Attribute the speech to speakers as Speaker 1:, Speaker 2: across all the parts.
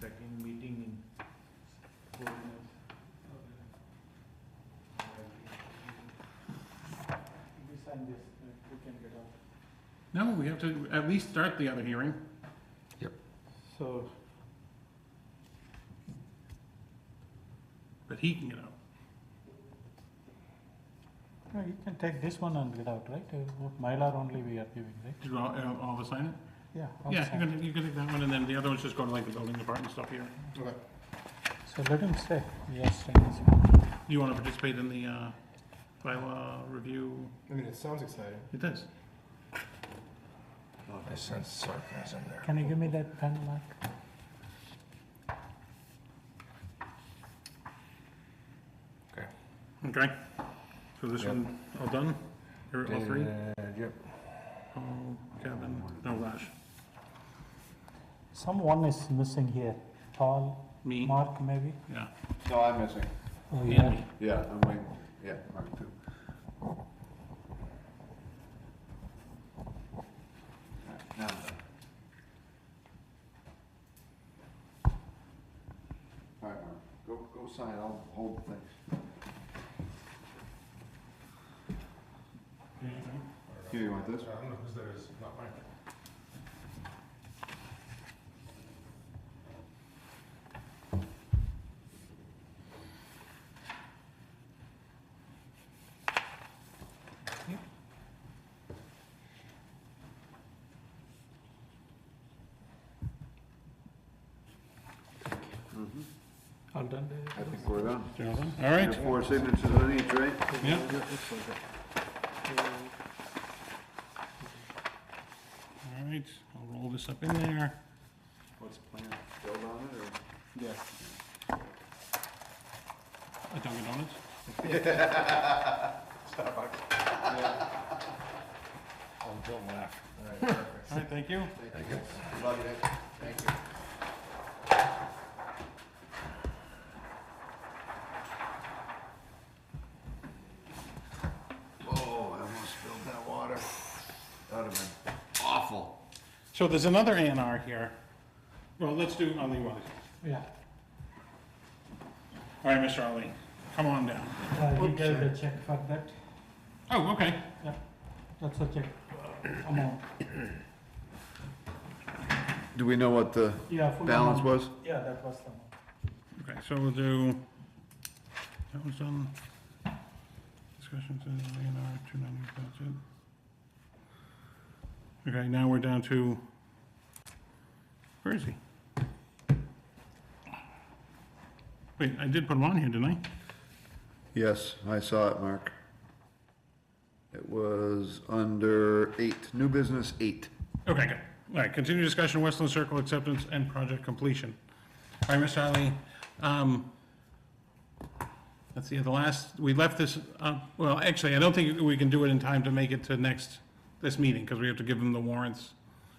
Speaker 1: second meeting in four months. We sign this, uh, we can get out.
Speaker 2: No, we have to at least start the other hearing.
Speaker 1: So,
Speaker 2: But he can get out.
Speaker 3: No, you can take this one and get out, right? Uh, Mylar only we are giving, right?
Speaker 2: Did all, uh, all of us sign it?
Speaker 3: Yeah.
Speaker 2: Yeah,
Speaker 3: outside.
Speaker 2: you can, you can take that one, and then the other ones just go to like the building department stuff here.
Speaker 4: Okay.
Speaker 3: So let him stay. Yes, staying this one.
Speaker 2: Do you want to participate in the, uh, bylaw review?
Speaker 4: I mean, it sounds exciting.
Speaker 2: It does.
Speaker 4: Oh, I sense sarcasm there.
Speaker 3: Can you give me that pen, Mark?
Speaker 2: Okay. So this
Speaker 4: Yep.
Speaker 2: one, all done? Here, all three?
Speaker 4: Uh, Yep.
Speaker 2: Oh, Kevin, no Raj.
Speaker 3: Someone is missing here. Paul,
Speaker 2: Me,
Speaker 3: Mark, maybe?
Speaker 2: yeah,
Speaker 4: No, I'm missing.
Speaker 3: Oh,
Speaker 2: and
Speaker 3: yeah.
Speaker 2: me.
Speaker 4: Yeah, I'm waiting. Yeah, Mark too. Alright, Now, I'm done. all right, Mark, go, go sign, I'll hold the things. Here, you want this?
Speaker 5: I don't know whose that is, not mine.
Speaker 3: All done.
Speaker 4: Mm-hmm. I think we're done.
Speaker 2: They're All done? All right,
Speaker 4: Your Four signatures on each, right?
Speaker 2: yeah. All right, I'll roll this up in there.
Speaker 4: What's the plan? Build on it, or?
Speaker 1: yes.
Speaker 2: A Dunkin' Donuts?
Speaker 4: I'll build one after.
Speaker 2: All right, thank you.
Speaker 4: Thank you. Love you, Nick. Thank you. Whoa, I almost spilled that water. That would have been awful.
Speaker 2: So there's another A and R here. Well, let's do Ali Wally.
Speaker 3: Yeah.
Speaker 2: All right, Mr. Ali, come on down.
Speaker 3: Uh, he gave the check for that.
Speaker 2: Oh, okay.
Speaker 3: That's a check amount.
Speaker 4: Do we know what the
Speaker 3: Yeah, full
Speaker 4: balance
Speaker 3: amount.
Speaker 4: was?
Speaker 3: Yeah, that was the amount.
Speaker 2: Okay, so we'll do, that was done. Discussions in A and R, two ninety, that's it. Okay, now we're down to, where is he? Wait, I did put him on here, didn't I?
Speaker 4: Yes, I saw it, Mark. It was under eight, new business eight.
Speaker 2: Okay, good. All right, continue discussion, Westland Circle acceptance and project completion. All right, Mr. Ali, um, let's see, the last, we left this, uh, well, actually, I don't think we can do it in time to make it to next, this meeting, because we have to give them the warrants.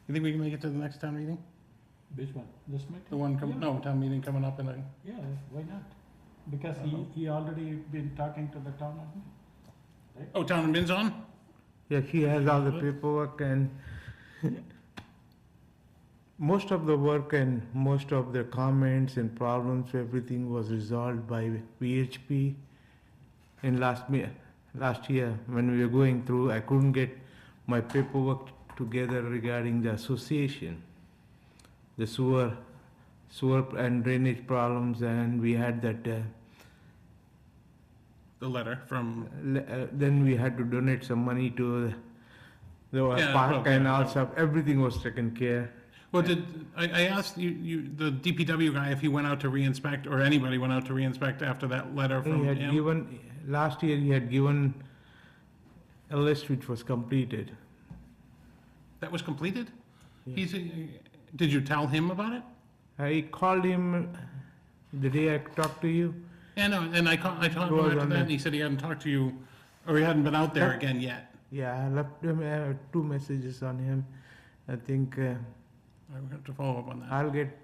Speaker 2: You think we can make it to the next town meeting?
Speaker 3: Which one? This meeting?
Speaker 2: The one, com- no, town meeting coming up in a,
Speaker 3: Yeah, why not? Because he, he already been talking to the town admin.
Speaker 2: oh, town and bin's on?
Speaker 6: Yeah, he has all the paperwork and most of the work and most of the comments and problems, everything was resolved by VHP in last me, last year when we were going through. I couldn't get my paperwork together regarding the association, the sewer, sewer and drainage problems, and we had that. Uh,
Speaker 2: The letter from,
Speaker 6: Le- uh, then we had to donate some money to the
Speaker 2: Yeah,
Speaker 6: park
Speaker 2: well,
Speaker 6: and
Speaker 2: yeah,
Speaker 6: all
Speaker 2: yeah.
Speaker 6: stuff. Everything was taken care.
Speaker 2: well, did, I, I asked you, you, the DPW guy if he went out to re-inspect, or anybody went out to re-inspect after that letter from
Speaker 6: He had
Speaker 2: him?
Speaker 6: given last year. He had given a list which was completed.
Speaker 2: That was completed?
Speaker 6: Yeah.
Speaker 2: He's, uh, did you tell him about it?
Speaker 6: I called him the day I talked to you.
Speaker 2: Yeah, no, and I called, I talked
Speaker 6: It
Speaker 2: him
Speaker 6: was
Speaker 2: after
Speaker 6: on
Speaker 2: that,
Speaker 6: there.
Speaker 2: and he said he hadn't talked to you, or he hadn't been out there
Speaker 6: Yeah.
Speaker 2: again yet.
Speaker 6: Yeah, I left him uh, two messages on him. I think uh,
Speaker 2: I would have to follow up on that.
Speaker 6: I'll get